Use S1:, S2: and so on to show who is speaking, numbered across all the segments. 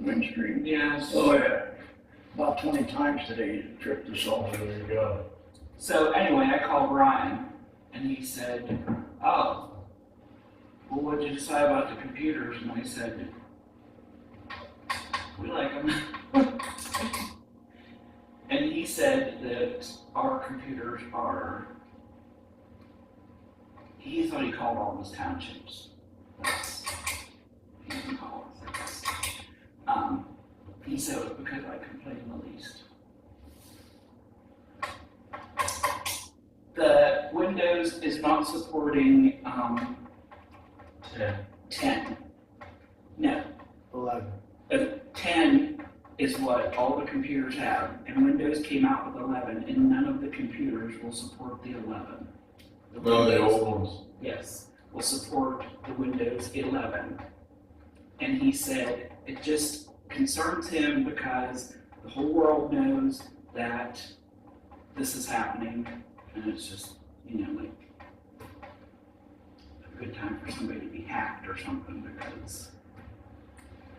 S1: Spring Street.
S2: Yes.
S1: Oh, yeah. About twenty times today, tripped us off.
S3: There you go.
S2: So anyway, I called Ryan and he said, oh, well, what'd you decide about the computers? And I said, we like them. And he said that our computers are, he thought he called all those townships. That's, he didn't call us, I guess. Um, he said it was because I complained the least. The Windows is not supporting, um,
S3: Ten.
S2: ten. No,
S3: Eleven.
S2: uh, ten is what all the computers have, and Windows came out with eleven, and none of the computers will support the eleven. The
S3: Well, the
S2: Windows-
S3: old ones.
S2: Yes, will support the Windows eleven. And he said it just concerns him because the whole world knows that this is happening, and it's just, you know, like a good time for somebody to be hacked or something because,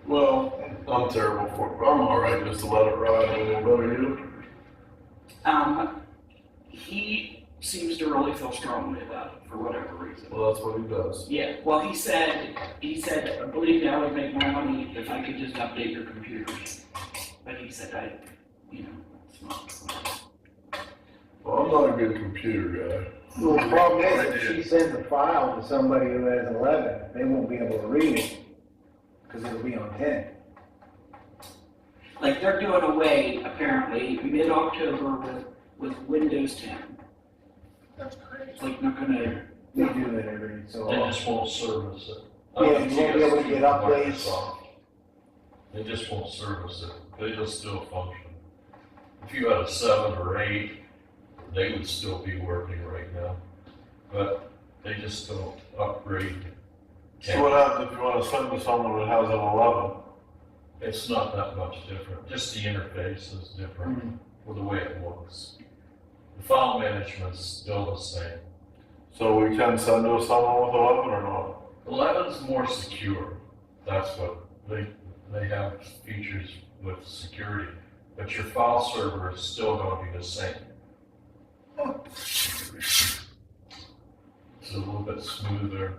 S3: Well, I'm terrible for it. I'm all right just to let it ride. I mean, what are you?
S2: um, he seems to really feel strongly about it for whatever reason.
S3: Well, that's what he does.
S2: Yeah, well, he said, he said, believe me, I would make more money if I could just update your computers. But he said, I, you know, it's not.
S3: Well, I'm not a good computer
S4: Well, the problem is, if she sends a file to somebody who has eleven, they won't be able to read it, because it'll be on ten.
S2: Like, they're doing away, apparently, mid-October with, with Windows ten. It's like not gonna,
S4: They do that every so
S5: They
S4: often.
S5: just won't service it.
S4: Yeah, you won't be able to get updates.
S5: They just won't service it, they will still function. If you had a seven or eight, they would still be working right now, but they just don't upgrade.
S3: guy. So what happens if you want to send to someone that has an eleven?
S5: It's not that much different, just the interface is different for the way it looks. The file management's still the same.
S3: So we can send to someone with eleven or not?
S5: Eleven's more secure. That's what they they have features with security, but your file server is still going to be the same. It's a little bit smoother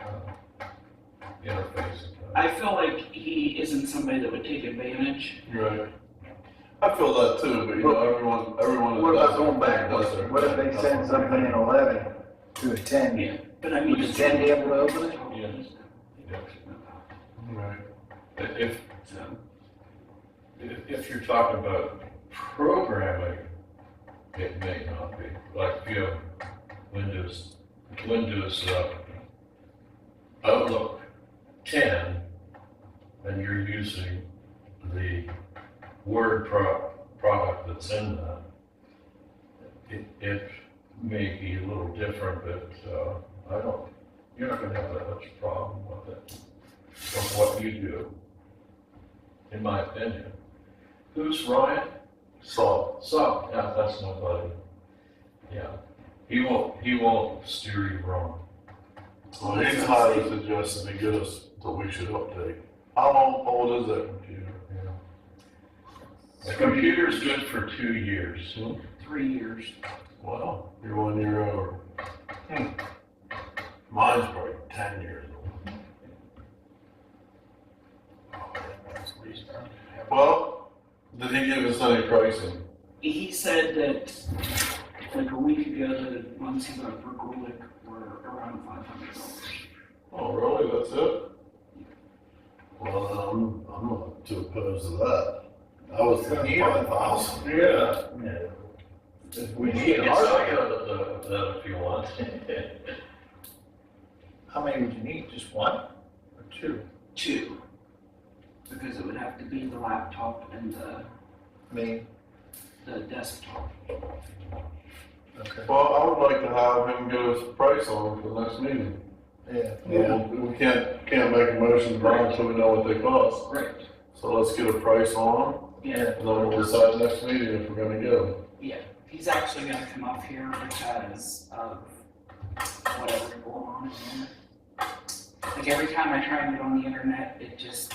S5: uh, interface.
S2: I feel like he isn't somebody that would take advantage.
S3: Right. I feel that too, but you know, everyone, everyone. that
S4: What
S3: does
S4: about
S3: it
S4: going back,
S3: does their
S4: what if they
S3: best.
S4: send something in eleven to a ten?
S2: Yeah, but I mean.
S4: Would the ten be able to open it?
S5: Yes. Yeah.
S3: Right.
S5: But If
S2: So,
S5: If, if you're talking about programming, it may not be, like if you have Windows, Windows, uh, Outlook ten, and you're using the Word pro- product that's in that, it, it may be a little different, but, uh, I don't, you're not gonna have that much problem with it, with what you do, in my opinion. Who's Ryan?
S3: So,
S5: So, yeah, that's my buddy. Yeah, he won't, he won't steer you wrong.
S3: so he's highly suggesting to get us that we should update. How long old is that computer?
S5: Yeah. A computer's good for two years.
S2: three years.
S3: Wow, you're one year over. uh, hmm, Mine's probably ten years old. Well, did he give us any pricing?
S2: He said that like a week ago, the ones he got for Gorlick were around five hundred dollars.
S3: Oh, really, that's it? Well, then I'm, I'm not too opposed to that. I was thinking five thousand.
S5: Yeah.
S3: If
S5: We need to get something out of the- that if you want.
S4: How many would you need, just one or two?
S2: Two, because it would have to be the laptop and the,
S4: I mean,
S2: the desktop.
S4: okay,
S3: Well, I would like to have him give us a price on it for the next meeting.
S4: yeah.
S3: We- We can't, can't make a motion now until we know what they cost.
S2: Right.
S3: So let's get a price on them,
S2: Yeah,
S3: and then we'll decide next meeting if we're gonna get them.
S2: yeah. He's actually gonna come up here because of whatever's going on in there. Like every time I try and get on the internet, it just